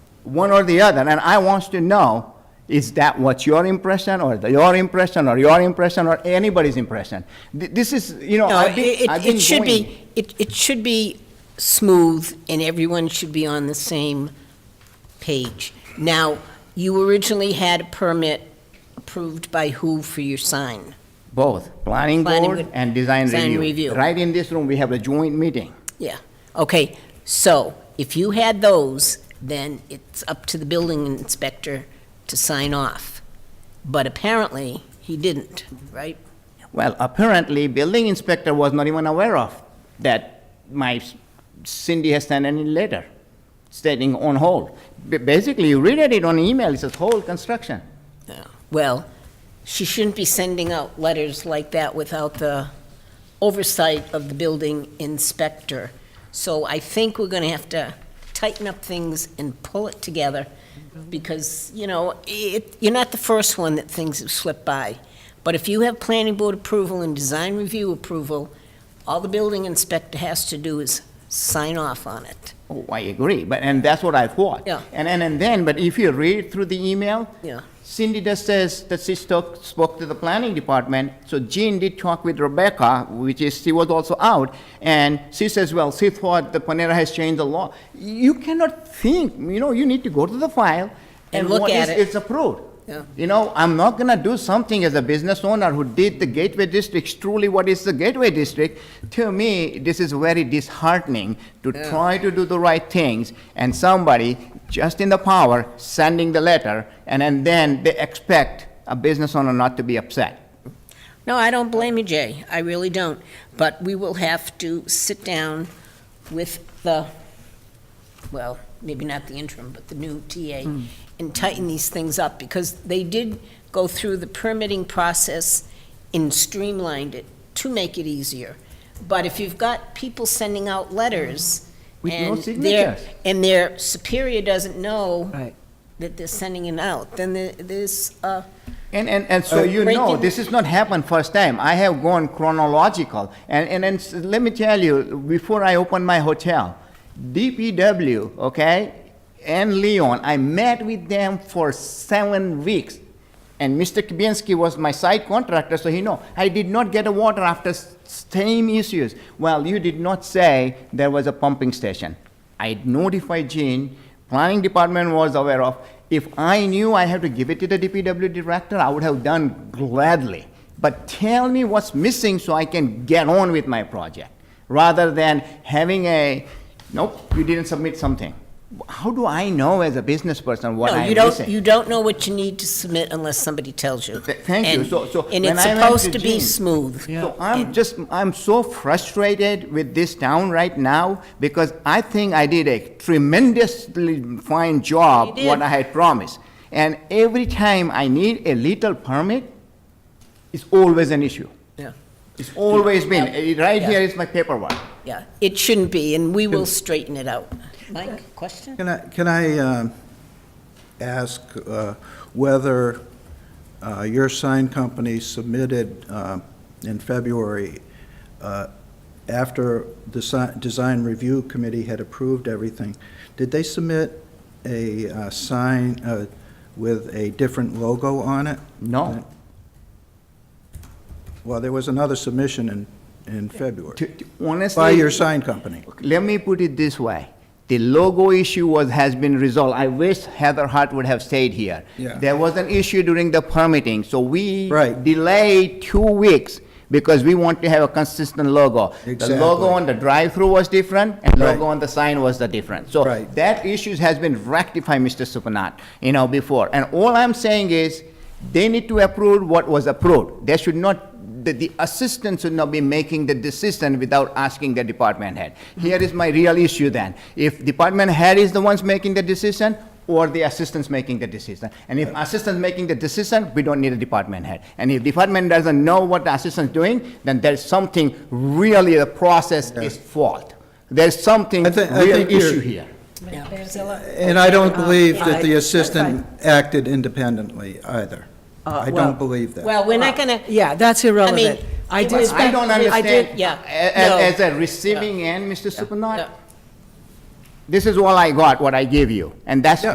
one or the other, and I wants to know, is that what's your impression, or the- your impression, or your impression, or anybody's impression? Th- This is, you know, No, I've it- been, I've it, been it should going. be, it, it should be smooth, and everyone should be on the same page. Now, you originally had a permit approved by who for your sign? Both, planning Planning board with- and design review. design review. Right in this room, we have a joint meeting. Yeah, okay, so if you had those, then it's up to the building inspector to sign off. But apparently, he didn't, right? Well, apparently, building inspector was not even aware of that my s- Cindy has sent any letter stating on hold. Ba- Basically, you read it on email, it says hold construction. Yeah. Well, she shouldn't be sending out letters like that without the oversight of the building inspector. So I think we're gonna have to tighten up things and pull it together, because, you know, it, you're not the first one that things have slipped by. But if you have planning board approval and design review approval, all the building inspector has to do is sign off on it. Oh, I agree, but, and that's what I thought. Yeah. And, and, and then, but if you read through the email. Yeah. Cindy just says that she spoke, spoke to the planning department, so Jean did talk with Rebecca, which is, she was also out, and she says, well, she thought the Panera has changed the law. You cannot think, you know, you need to go to the file. And look what is- at it. It's approved. Yeah. You know, I'm not gonna do something as a business owner who did the Gateway District, truly what is the Gateway District? To me, this is very disheartening to try to do the right things and somebody just in the power sending the letter and, and then they expect a business owner not to be upset. No, I don't blame you, Jay. I really don't. But we will have to sit down with the, well, maybe not the interim, but the new TA, Hmm. and tighten these things up, because they did go through the permitting process and streamlined it to make it easier. But if you've got people sending out letters, With no and their, signatures. and their superior doesn't know Right. that they're sending it out, then there- there's, uh, And, and, and so Uh, you Right. know, this is not happened first time. I have gone chronological. And, and, and s- let me tell you, before I opened my hotel, DPW, okay, and Leon, I met with them for seven weeks. And Mr. Kubinski was my site contractor, so he know. I did not get a water after s- same issues. Well, you did not say there was a pumping station. I notified Gene, planning department was aware of. If I knew I had to give it to the DPW director, I would have done gladly. But tell me what's missing so I can get on with my project, rather than having a, nope, you didn't submit something. How do I know as a business person what No, I'm you missing? don't, you don't know what you need to submit unless somebody tells you. Th- thank you. And- So- so And when it's I went to supposed to be Gene- smooth. So I'm just, I'm so frustrated with this town right now because I think I did a tremendously fine job You what did. I had promised. And every time I need a little permit, it's always an issue. Yeah, It's always been, Eh, right Yeah. here is my paperwork. yeah, it shouldn't be, and we will straighten it out. Mike, question? Can I, can I um, ask uh, whether uh, your sign company submitted uh, in February, uh, after the si- design review committee had approved everything, did they submit a uh, sign uh, with a different logo on it? No. Well, there was another submission in, in February, To- to- Honestly. by your sign company. Let me put it this way. The logo issue was, has been resolved. I wish Heather Hart would have stayed here. Yeah. There was an issue during the permitting, so we Right. delayed two weeks because we want to have a consistent logo. The Exactly. logo on the drive-through was different, and logo Right. on the sign was the different. So Right. that issue has been rectified, Mr. Supranat, you know, before. And all I'm saying is, they need to approve what was approved. They should not, the, the assistant should not be making the decision without asking the department head. Here is my real issue then. If department head is the ones making the decision, or the assistant's making the decision. And if assistant's making the decision, we don't need a department head. And if department doesn't know what the assistant's doing, then there's something really, the process is fault. There's something I think- I real think you're- issue here. And I don't believe that I- Uh, the assistant acted independently either. I well- don't believe that. Well, we're not gonna, Uh, Yeah, that's I mean, irrelevant. I it did, was- I don't I did- understand, yeah, a- a- no. as a receiving end, Mr. Yeah. Supranat, this is all I got, what I gave you, and that's